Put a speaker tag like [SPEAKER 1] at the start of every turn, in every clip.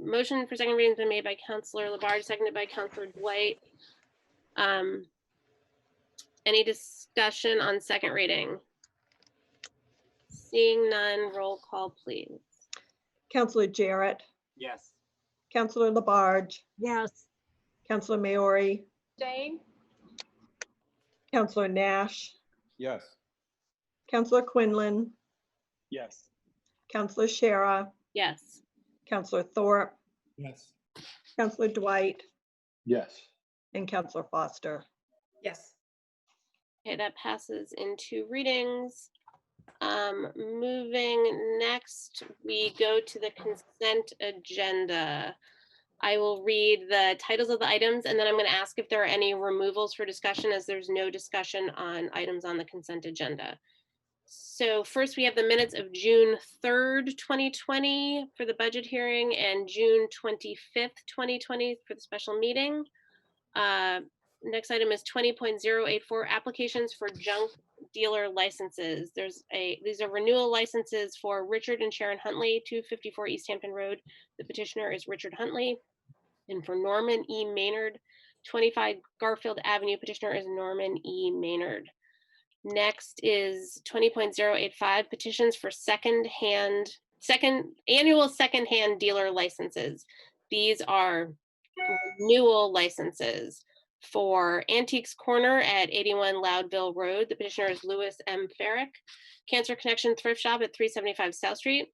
[SPEAKER 1] motion for second reading has been made by Counselor Labarge, seconded by Counselor Dwight. Um, Any discussion on second reading? Seeing none, roll call, please.
[SPEAKER 2] Counselor Jarrett,
[SPEAKER 3] Yes.
[SPEAKER 2] Counselor Labarge,
[SPEAKER 4] yes,
[SPEAKER 2] Counselor Maori,
[SPEAKER 5] Jane?
[SPEAKER 2] Counselor Nash,
[SPEAKER 3] Yes.
[SPEAKER 2] Counselor Quinlan,
[SPEAKER 3] Yes.
[SPEAKER 2] Counselor Shara,
[SPEAKER 1] Yes.
[SPEAKER 2] Counselor Thorpe,
[SPEAKER 3] Yes.
[SPEAKER 2] Counselor Dwight,
[SPEAKER 3] Yes.
[SPEAKER 2] and Counselor Foster.
[SPEAKER 5] Yes.
[SPEAKER 1] Okay, that passes in two readings. Um, moving next, we go to the consent agenda. I will read the titles of the items and then I'm gonna ask if there are any removals for discussion as there's no discussion on items on the consent agenda. So first, we have the minutes of June third, twenty twenty for the budget hearing and June twenty-fifth, twenty twenty for the special meeting. Uh, Next item is twenty point zero eight four, applications for junk dealer licenses. There's a, these are renewal licenses for Richard and Sharon Huntley, two fifty-four East Hampton Road. The petitioner is Richard Huntley. And for Norman E. Maynard, twenty-five Garfield Avenue, petitioner is Norman E. Maynard. Next is twenty point zero eight five, petitions for second-hand, second, annual second-hand dealer licenses. These are renewal licenses for Antiques Corner at 81 Loudville Road. The petitioner is Louis M. Farrick. Cancer Connection Thrift Shop at 375 South Street.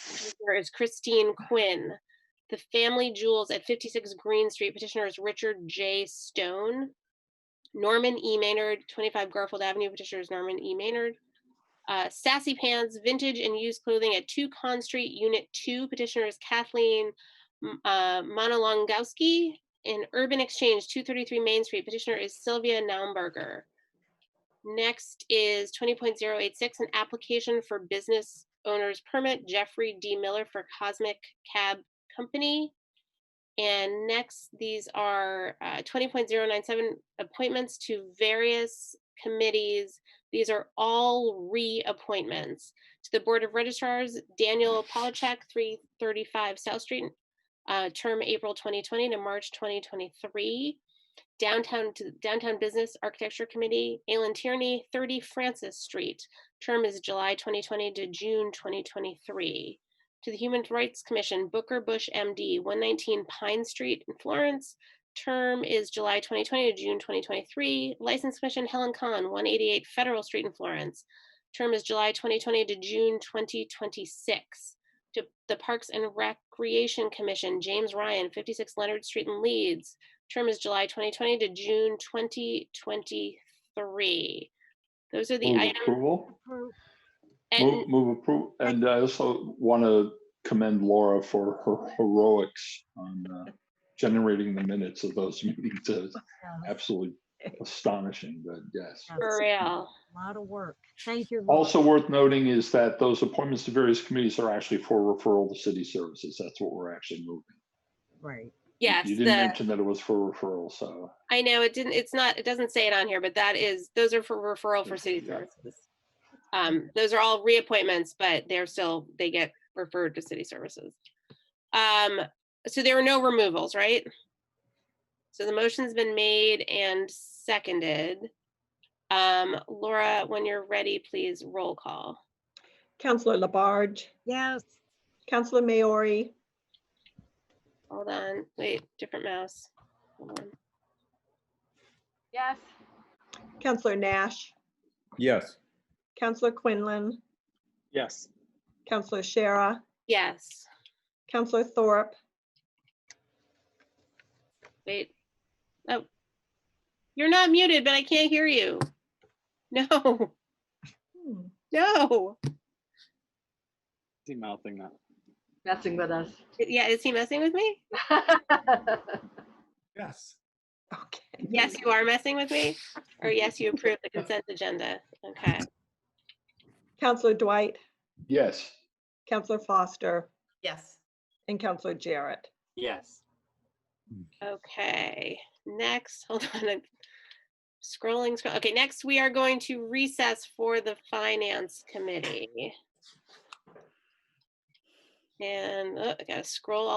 [SPEAKER 1] Petitioner is Christine Quinn. The Family Jewels at 56 Green Street. Petitioner is Richard J. Stone. Norman E. Maynard, 25 Garfield Avenue. Petitioner is Norman E. Maynard. Uh, Sassy Pants, Vintage and Used Clothing at 2 Con Street, Unit 2. Petitioner is Kathleen M- uh, Monolongowski in Urban Exchange, 233 Main Street. Petitioner is Sylvia Naumberger. Next is 20.086, an application for business owner's permit, Jeffrey D. Miller for Cosmic Cab Company. And next, these are uh, 20.097, appointments to various committees. These are all reappointments. To the Board of Registrars, Daniel Polachek, 335 South Street, uh, term April 2020 to March 2023. Downtown to Downtown Business Architecture Committee, Alan Tierney, 30 Francis Street. Term is July 2020 to June 2023. To the Human Rights Commission, Booker Bush MD, 119 Pine Street in Florence. Term is July 2020 to June 2023. License Commission, Helen Kahn, 188 Federal Street in Florence. Term is July 2020 to June 2026 to the Parks and Recreation Commission, James Ryan, 56 Leonard Street in Leeds. Term is July 2020 to June 2023. Those are the
[SPEAKER 6] Move
[SPEAKER 1] items.
[SPEAKER 6] approval,
[SPEAKER 4] approve,
[SPEAKER 6] move,
[SPEAKER 1] And
[SPEAKER 6] move approval, and I also want to commend Laura for her heroics on uh, generating the minutes of those meetings.
[SPEAKER 4] yes,
[SPEAKER 6] It's absolutely astonishing, but yes.
[SPEAKER 4] yes.
[SPEAKER 1] for real,
[SPEAKER 4] A lot of work. Thank you. Laura.
[SPEAKER 6] Also worth noting is that those appointments to various committees are actually for referral to city services. That's what we're actually moving.
[SPEAKER 4] Right.
[SPEAKER 6] You-
[SPEAKER 1] yes,
[SPEAKER 6] You didn't
[SPEAKER 1] the-
[SPEAKER 6] mention that it was for referral, so
[SPEAKER 1] I know it didn't, it's not, it doesn't say it on here, but that is, those are for referral for city
[SPEAKER 6] Yeah.
[SPEAKER 1] services. Um, those are all reappointments, but they're still, they get referred to city services. Um, so there were no removals, right? So the motion's been made and seconded. Um, Laura, when you're ready, please roll call.
[SPEAKER 2] Counselor Labarge,
[SPEAKER 4] Yes,
[SPEAKER 2] Counselor Maori,
[SPEAKER 1] Hold on, wait, different mouse. Hold on.
[SPEAKER 5] Yes.
[SPEAKER 2] Counselor Nash,
[SPEAKER 3] Yes.
[SPEAKER 2] Counselor Quinlan,
[SPEAKER 3] Yes.
[SPEAKER 2] Counselor Shara,
[SPEAKER 1] Yes,
[SPEAKER 2] Counselor Thorpe,
[SPEAKER 1] wait. Oh. You're not muted, but I can't hear you. No.
[SPEAKER 2] hmm,
[SPEAKER 1] No.
[SPEAKER 3] He mouthing that.
[SPEAKER 5] Messing with us.
[SPEAKER 1] Yeah, is he messing with me?
[SPEAKER 3] Yes.
[SPEAKER 2] okay.
[SPEAKER 1] Yes, you are messing with me? Or yes, you approve the consent agenda? Okay.
[SPEAKER 2] Counselor Dwight,
[SPEAKER 6] yes,
[SPEAKER 2] Counselor Foster,
[SPEAKER 5] Yes.
[SPEAKER 2] and Counselor Jarrett.
[SPEAKER 3] Yes.
[SPEAKER 1] Okay, next, hold on, I'm scrolling, scroll, okay, next, we are going to recess for the finance committee. And, oh, I gotta scroll all